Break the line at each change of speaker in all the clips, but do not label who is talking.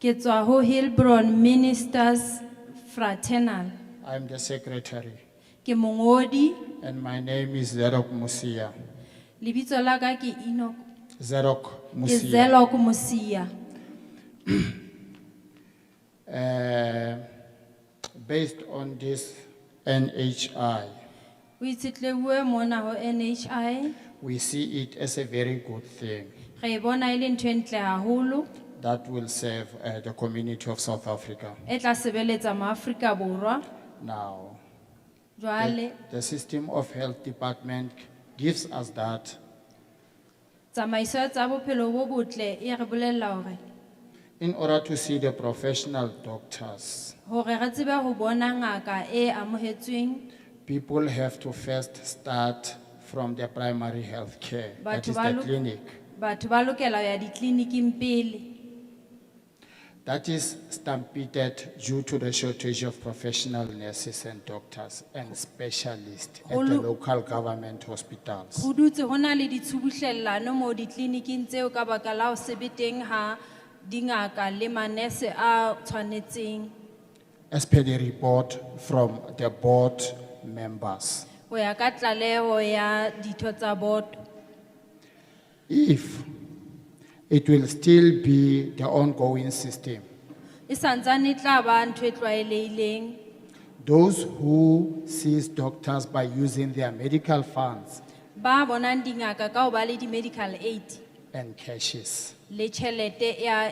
Ke tswa ho Hillbron Ministers Fraternal.
I'm the secretary
Ke mongodi,
and my name is Zerok Musia.
lebitso la ka ke Enoch,
Zerok
ke
Musia.
Zelok Musia.
Uh, based on this NHI,
O itshetlehile mona ho NHI,
we see it as a very good thing
re e bona e le ntho e ntle haholo
that will serve uh, the community of South Africa.
e tla sebeletsa maAfrika Borwa.
Now, the,
Jwale
the system of health department gives us that
tsamaiso tsa bophelo bo botle e re bolella hore
in order to see the professional doctors.
hore re tsebe ho bona ngaka e amohetsweng
People have to first start from the primary health care, that
Batho
is
ba
the
lo-
clinic.
batho ba lokela ho ya ditleliniking pele
That is stampeded due to the shortage of professional nurses and doctors and specialists at the
Holo-
local government hospitals.
ho dutse ho na le ditshubuhlellano moo ditleliniking tseo ka baka la ho sebe teng ha dingaka le manese a tshwanetseng
As per the report from the board members,
ho ya ka tlaleho ya ditho tsa boto
if it will still be the ongoing system,
e santsane e tla ba ntho e tlwaelehileng
those who sees doctors by using their medical funds
ba bonang dingaka ka ho ba le di-medical aid
and cashes,
le tjhelete ya,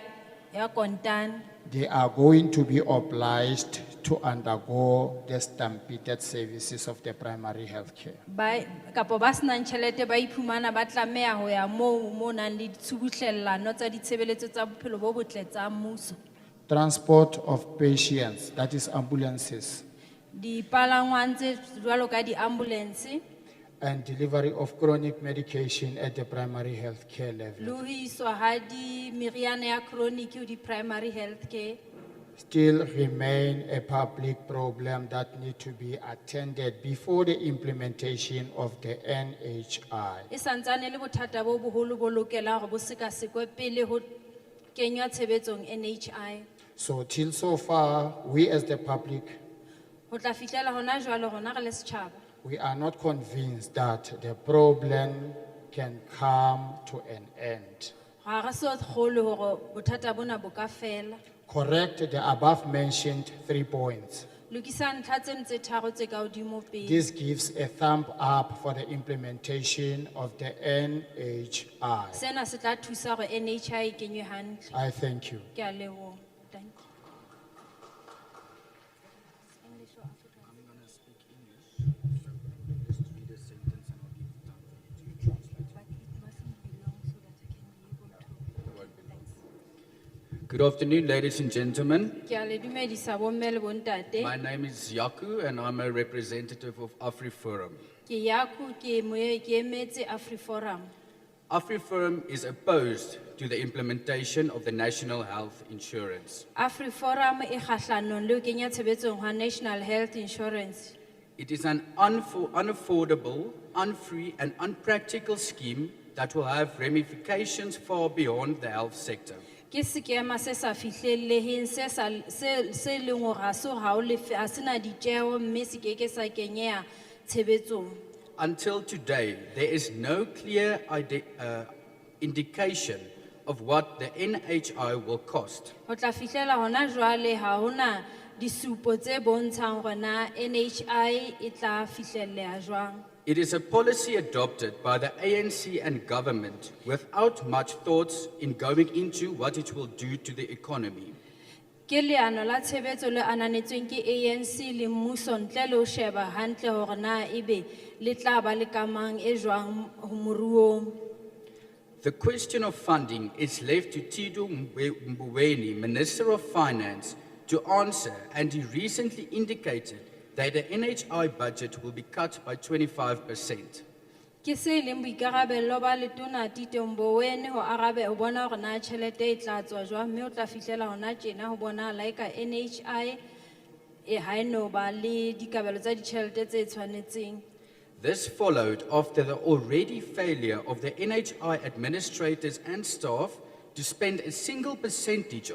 ya kontane
they are going to be obliged to undergo the stampeded services of the primary health care.
ba kapo ba senang tjhelete ba iphumana ba tlameha ho ya moo mo nang le tshubuhlellano tsa ditshebeletso tsa bophelo bo botle tsa mmuso
Transport of patients, that is ambulances,
dipalangwang tse jwalo ka di-ambulance
and delivery of chronic medication at the primary health care
le
level.
ho iswa ha di meriana ya chronic ho di-primary health care
Still remain a public problem that need to be attended before the implementation of the NHI.
e santsane e le bothata bo boholo bo lokelang hore bo sekasekwe pele ho kenywa tshebetsong nhi
So till so far, we as the public,
ho tla fihlela hona jwale rona re le setjhaba
we are not convinced that the problem can come to an end.
ga re so kgolwe hore bothata bona bo ka fela
Correct the above mentioned three points.
lokisa ntlha tseno tse tharo tse ka hodimo pele
This gives a thumb up for the implementation of the NHI.
sena se tla thusa hore nhi e kenywe hantle
I thank you.
ke a leboha Thank you.
Good afternoon, ladies and gentlemen.
ke a le dumedisa bomme le bontate
My name is Yaku, and I'm a representative of AfriForum.
ke yaku ke moe- ke emetse afriforum
AfriForum is opposed to the implementation of the National Health Insurance.
afriforum e kgahlanong le ho kenya tshebetsong ha national health insurance
It is an unfor- unaffordable, unfree, and unpractical scheme that will have ramifications far beyond the health sector.
ke sekema se sa fihlelleheng se sa- se- se leng hore ha se ha o lefe ha se na ditjeo mme se keke sa kenyeha tshebetsong
Until today, there is no clear ide- uh, indication of what the NHI will cost.
ho tla fihlela hona jwale ha hona disupo tse bontshang hore na nhi e tla fihlelleha jwang
It is a policy adopted by the ANC and government without much thoughts in going into what it will do to the economy.
ke leano la tshebetso le ananetsweng ke anc le mmuso ntle le ho sheba hantle hore na ebe le tla ba le kamang e jwang ho moruong
The question of funding is left to Tido Mbe- Mboweni, Minister of Finance, to answer, and he recently indicated that the NHI budget will be cut by 25%.
ke se e leng boikarabello ba letona titomboweni ho arabe ho bona hore na tjhelete e tla tswa jwang mme o tla fihlela hona tjena ho bona laika nhi e ha e no ba le dikabelo tsa ditjhelete tse tshwanetseng
This followed after the already failure of the NHI administrators and staff to spend a single percentage